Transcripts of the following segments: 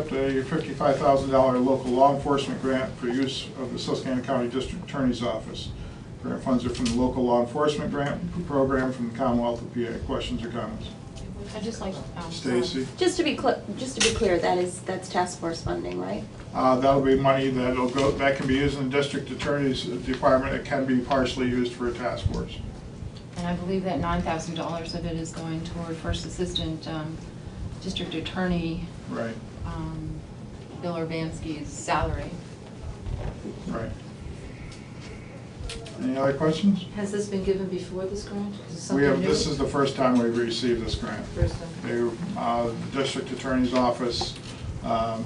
accept a fifty-five thousand dollar local law enforcement grant for use of the Susquehanna County District Attorney's Office. Grant funds are from the local law enforcement grant program from the Commonwealth of PA. Questions or comments? I'd just like. um, Stacy? Just to be clear, just to be clear, that is, that's task force funding, right? Uh, That'll be money that'll go, that can be used in the district attorney's department. It can be partially used for a task force. And I believe that nine thousand dollars of it is going toward first assistant, um, district attorney, Right, um, Bill Urbanski's salary. right. Any other questions? Has this been given before this grant? Is it We something have, new? this is the first time we've received this grant. First time. They, uh, the district attorney's office, um,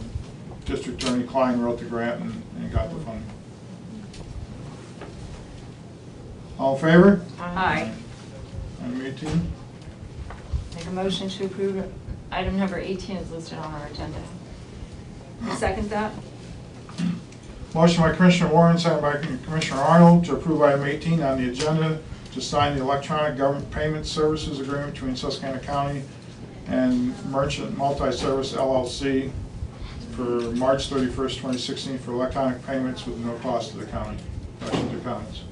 District Attorney Klein wrote the grant and, and got the funding. All in favor? Aye. Item eighteen, Make a motion to approve item number eighteen is listed on our agenda. Second that? motion by Commissioner Warren, second by Commissioner Arnold to approve item eighteen on the agenda to sign the electronic government payment services agreement between Susquehanna County and Merchant Multi-Service LLC for March thirty-first, twenty sixteen for electronic payments with no cost to the county. Questions or comments?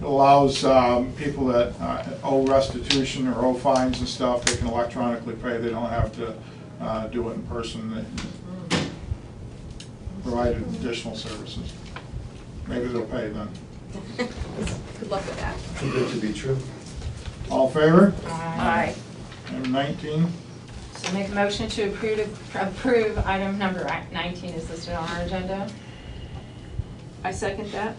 It allows um, people that uh, owe restitution or owe fines and stuff, they can electronically pay, they don't have to uh, do it in person. They Mm-hmm. Provide additional services. Maybe they'll pay then. Good luck with that. Too good to be true. All in favor? Aye. Item 19, So make a motion to approve, approve item number nineteen is listed on our agenda. I second that.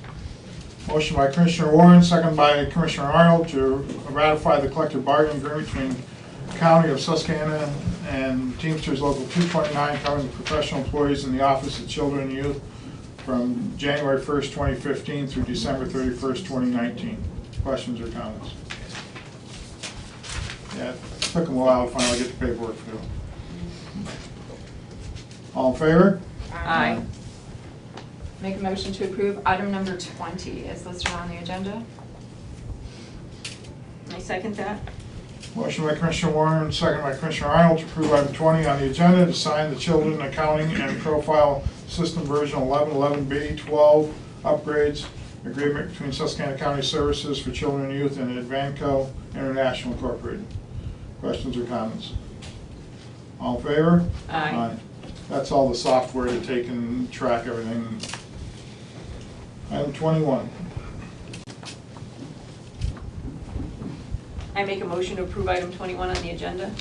motion by Commissioner Warren, second by Commissioner Arnold to ratify the collective bargaining agreement between County of Susquehanna and Teamsters Local 229 covering the professional employees in the Office of Children and Youth from January 1st, 2015 through December 31st, 2019. Questions or comments? Yeah, it took them a while to finally get the paperwork through. All in favor? Aye. Make a motion to approve item number twenty is listed on the agenda. I second that. Motion by Commissioner Warren, second by Commissioner Arnold to approve item 20 on the agenda to sign the Children Accounting and Profile System Version 1111B12 upgrades agreement between Susquehanna County Services for Children and Youth and Advanco International Incorporated. Questions or comments? All in favor? Aye. That's all the software to take and track everything. Item 21. I make a motion to approve item 21 on the agenda.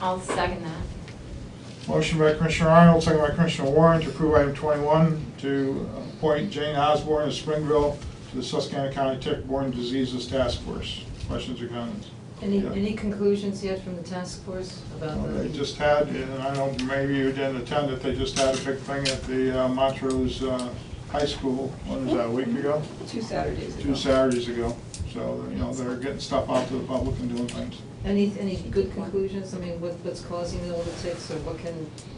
I'll second that. Motion by Commissioner Arnold, second by Commissioner Warren to approve item 21 to appoint Jane Osborne of Springville to the Susquehanna County Tick-Borne Diseases Task Force. Questions or comments? Any, Yeah. any uh, conclusions yet from the task force about Well, They the, just had, and I don't, maybe you didn't attend it, they just had a big thing at the uh, Montrose uh, High School, when was that, a week ago? Two Saturdays ago. Two Saturdays ago. So, you know, they're getting stuff out to the public and doing things. any, any good conclusions? I mean, what, what's causing all the ticks or what can,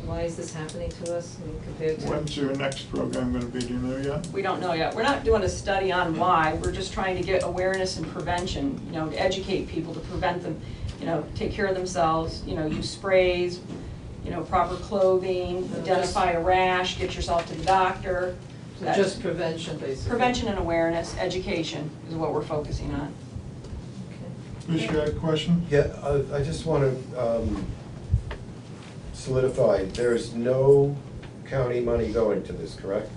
why is this happening to us I mean, compared to? When's your next program going to be, do you know yet? We don't know yet. We're not doing a study on why. We're just trying to get awareness and prevention, you know, to educate people to prevent them, you know, take care of themselves, you know, use sprays, you know, proper clothing, Uh, identify a rash, get yourself to the doctor. So That- Just prevention, basically? Prevention and awareness, education is what we're focusing on. Okay. Bruce, you had a question? Yeah, I, I just wanna, um, solidify, there's no county money going to this, correct?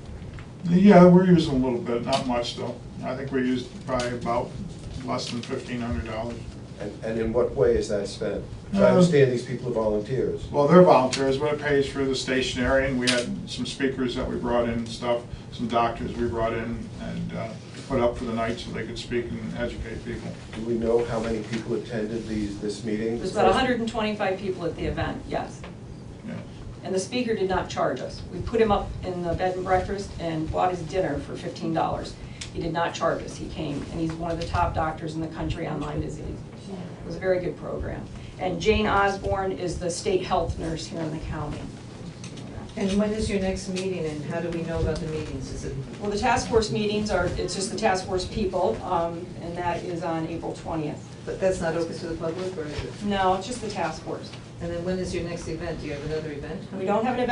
Yeah, we're using a little bit, not much though. I think we used probably about less than fifteen hundred dollars. And, and in what way is that spent? I Uh, understand these people are volunteers. Well, they're volunteers, but it pays for the stationery and we had some speakers that we brought in and stuff, some doctors we brought in and uh, put up for the night so they could speak and educate people. Do we know how many people attended these, this meeting? There's about 125 people at the event, yes. Yeah. And the speaker did not charge us. We put him up in the bed and breakfast and bought his dinner for fifteen dollars. He did not charge us, he came, and he's one of the top doctors in the country on Lyme disease. It was a very good program. And Jane Osborne is the state health nurse here in the county. And when is your next meeting and how do we know about the meetings? Is it, Well, the task force meetings are, it's just the task force people, um, and that is on April twentieth. but that's not open to the public or is it? No, it's just the task force. And then when is your next event? Do you have another event? We don't have an event